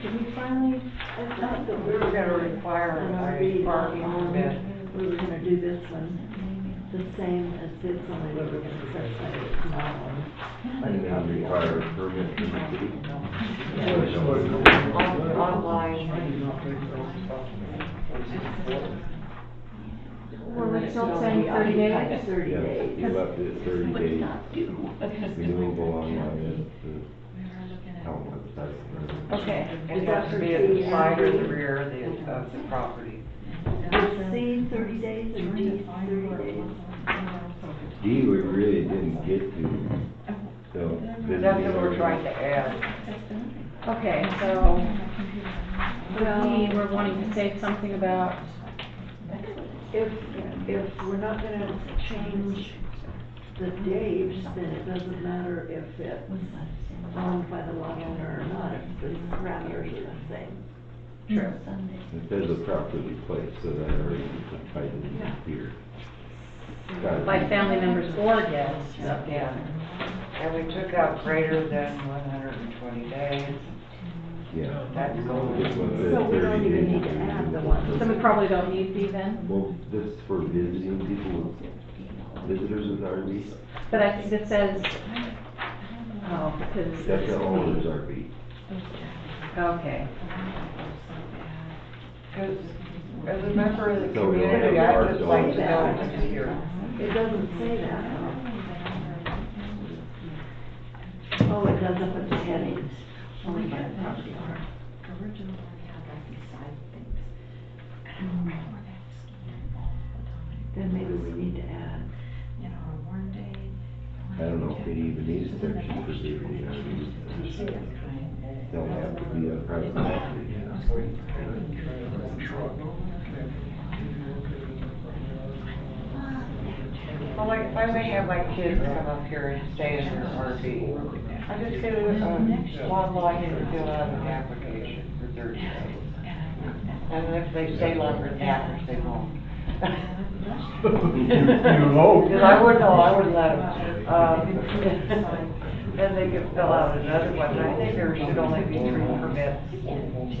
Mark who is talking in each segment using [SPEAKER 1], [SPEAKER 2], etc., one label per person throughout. [SPEAKER 1] Did we finally,
[SPEAKER 2] I thought that we were gonna require a parking permit.
[SPEAKER 1] We were gonna do this one the same as this one, and we were gonna set that it's not one.
[SPEAKER 3] I did not require a permit from the city.
[SPEAKER 2] On- Online.
[SPEAKER 4] Well, it's not saying thirty days.
[SPEAKER 1] Thirty
[SPEAKER 3] Yeah,
[SPEAKER 1] days.
[SPEAKER 3] You left it thirty days renewable online, I don't know, if that's-
[SPEAKER 4] Okay.
[SPEAKER 2] It has to be at the side or the rear of the, of the property.
[SPEAKER 1] Is C thirty days or D thirty days?
[SPEAKER 3] D, we really didn't get to, so. this
[SPEAKER 2] That's
[SPEAKER 3] is
[SPEAKER 2] what
[SPEAKER 3] our-
[SPEAKER 2] we're trying to add.
[SPEAKER 4] Okay, so,
[SPEAKER 1] Well-
[SPEAKER 4] we were wanting to say something about,
[SPEAKER 1] If, if we're not gonna change the dates, then it doesn't matter if it's owned by the lot owner or not, if the parameters are the same.
[SPEAKER 2] True.
[SPEAKER 3] It says a properly placed, so that already tied in here. Got it.
[SPEAKER 4] like, family members or guests.
[SPEAKER 2] Yeah. And we took out greater than one hundred and twenty days.
[SPEAKER 3] Yeah.
[SPEAKER 2] That's going.
[SPEAKER 3] This one says
[SPEAKER 1] So we don't
[SPEAKER 3] 30
[SPEAKER 1] even
[SPEAKER 3] days
[SPEAKER 1] need to add the
[SPEAKER 3] renewable.
[SPEAKER 1] one.
[SPEAKER 4] So we probably don't need B then,
[SPEAKER 3] Well, this is for visiting people, visitors with RVs,
[SPEAKER 4] but I think it says, oh, because.
[SPEAKER 3] that's the owner's RV.
[SPEAKER 4] Okay,
[SPEAKER 2] Because as a member of the
[SPEAKER 3] So we don't
[SPEAKER 2] community,
[SPEAKER 3] have
[SPEAKER 2] I
[SPEAKER 3] our
[SPEAKER 2] just like to
[SPEAKER 3] dogs.
[SPEAKER 2] know what's here.
[SPEAKER 1] It doesn't say that. Oh, it does up at the headings, only by the property owner. Then maybe we need to add,
[SPEAKER 3] I don't know if it even needs a section for visiting RVs. Don't have to be a private property, you know.
[SPEAKER 2] Well, like, if I may have my kids come up here and stay in their RV, I just get a, a one line and fill out an application for thirty days. And if they stay longer than that, they won't. Because I would know, I would let them. Um, Then they could fill out another one, I think there should only be three permits,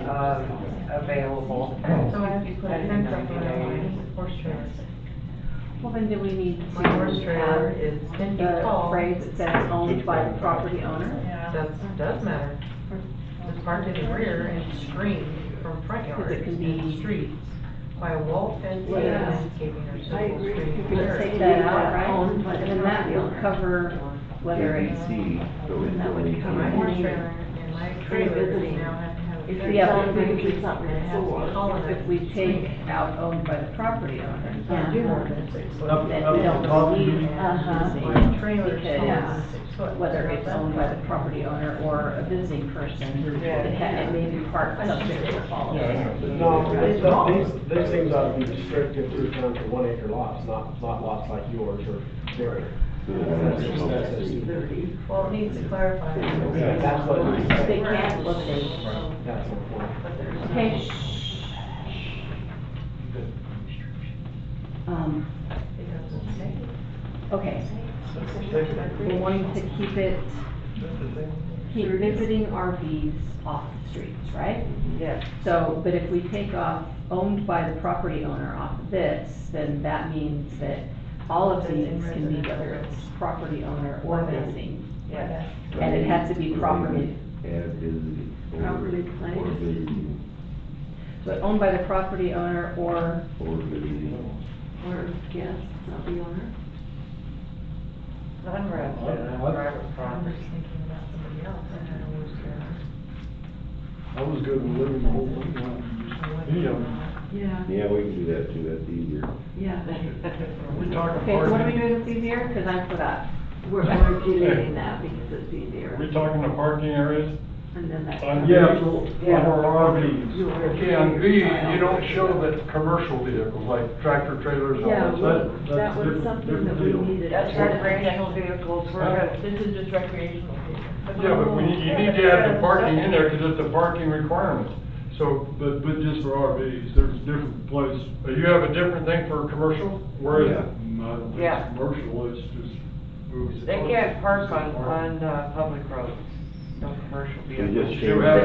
[SPEAKER 2] um, available.
[SPEAKER 5] So I have to put a fence up around my horse trailer.
[SPEAKER 4] well then do we need to
[SPEAKER 5] My horse trailer
[SPEAKER 4] add
[SPEAKER 5] is ten feet
[SPEAKER 4] the
[SPEAKER 5] tall.
[SPEAKER 4] phrase that says owned by the property owner?
[SPEAKER 5] Does, does matter. It's parked in the rear and screened from front yard.
[SPEAKER 4] Because it can be-
[SPEAKER 5] Street by a wall fence and
[SPEAKER 1] Yeah.
[SPEAKER 5] landscaping or
[SPEAKER 1] I
[SPEAKER 5] simple
[SPEAKER 1] agree.
[SPEAKER 5] screening.
[SPEAKER 1] You
[SPEAKER 4] Let's
[SPEAKER 1] could
[SPEAKER 5] area.
[SPEAKER 4] take that out,
[SPEAKER 1] Owned by
[SPEAKER 4] right?
[SPEAKER 1] the
[SPEAKER 4] And then that will
[SPEAKER 1] property owner.
[SPEAKER 4] cover whether it's
[SPEAKER 3] ABC, so it's
[SPEAKER 1] That would
[SPEAKER 3] only
[SPEAKER 1] cover
[SPEAKER 5] My
[SPEAKER 3] for-
[SPEAKER 5] horse trailer and my trailer now have to
[SPEAKER 1] If
[SPEAKER 5] have. a
[SPEAKER 1] you're
[SPEAKER 4] Yeah,
[SPEAKER 5] fence.
[SPEAKER 1] telling me it's not
[SPEAKER 5] And it has to be
[SPEAKER 1] before,
[SPEAKER 5] taller than
[SPEAKER 4] If we take out owned by the property owner,
[SPEAKER 1] I do know
[SPEAKER 4] then we don't need, uh-huh.
[SPEAKER 5] My trailer's taller
[SPEAKER 4] Because
[SPEAKER 5] than six foot.
[SPEAKER 4] whether it's owned by the property owner or a visiting person, it ha- it may be part subject to all of it.
[SPEAKER 6] No, these, these things ought to be restricted to down to one acre lots, not, not lots like yours or bigger.
[SPEAKER 1] uh, thirty.
[SPEAKER 5] Well, it needs to clarify.
[SPEAKER 6] Yeah, that's what it is.
[SPEAKER 4] They can't look at.
[SPEAKER 6] That's the point.
[SPEAKER 5] But there's.
[SPEAKER 4] Okay. Um,
[SPEAKER 5] It doesn't say.
[SPEAKER 4] okay, we're wanting to keep it, keep visiting RVs off the streets, right?
[SPEAKER 2] Yes.
[SPEAKER 4] So, but if we take off owned by the property owner off of this, then that means that all of these can be, whether it's property owner or visiting.
[SPEAKER 2] Yes.
[SPEAKER 4] And it has to be properly-
[SPEAKER 3] And visiting. or-
[SPEAKER 1] Properly
[SPEAKER 3] Or
[SPEAKER 1] placed.
[SPEAKER 3] visiting,
[SPEAKER 4] But owned by the property owner or,
[SPEAKER 3] or visiting.
[SPEAKER 1] Or guest, not the owner.
[SPEAKER 2] Non-resident, private
[SPEAKER 5] I was
[SPEAKER 2] property.
[SPEAKER 5] thinking about somebody else, I don't know who's there.
[SPEAKER 7] I was good with living the whole thing. Yeah.
[SPEAKER 1] Yeah,
[SPEAKER 3] Yeah, we can do that too, that's easier.
[SPEAKER 1] yeah.
[SPEAKER 7] We talking
[SPEAKER 4] okay, so what are we doing with these here? Cause I'm for that.
[SPEAKER 1] We're, we're deleting that because it's easier.
[SPEAKER 8] We talking the parking areas?
[SPEAKER 1] And then that.
[SPEAKER 8] On
[SPEAKER 7] Yeah.
[SPEAKER 8] vehicles, for
[SPEAKER 2] Yeah.
[SPEAKER 8] RVs.
[SPEAKER 1] Your-
[SPEAKER 8] Okay, on V, you don't show the commercial vehicles, like tractor trailers and
[SPEAKER 1] Yeah,
[SPEAKER 8] all that.
[SPEAKER 1] we-
[SPEAKER 8] That-
[SPEAKER 1] that
[SPEAKER 8] that's
[SPEAKER 1] was
[SPEAKER 8] different-
[SPEAKER 1] something that
[SPEAKER 8] different
[SPEAKER 1] we
[SPEAKER 8] deal.
[SPEAKER 1] needed.
[SPEAKER 2] That's recreational vehicles, we're gonna
[SPEAKER 5] This is just recreational. vehicles.
[SPEAKER 8] Yeah, but we, you need to add the parking in there, because it's a parking requirement. So, but, but just for RVs, there's a different place. Uh, You have a different thing for commercial, whereas,
[SPEAKER 3] Yeah.
[SPEAKER 8] I don't think
[SPEAKER 2] Yeah.
[SPEAKER 8] commercial is just. movies.
[SPEAKER 2] They can't park on, on, uh, public roads, no commercial
[SPEAKER 3] We
[SPEAKER 2] vehicles.
[SPEAKER 3] just
[SPEAKER 8] You
[SPEAKER 3] changed that.
[SPEAKER 8] have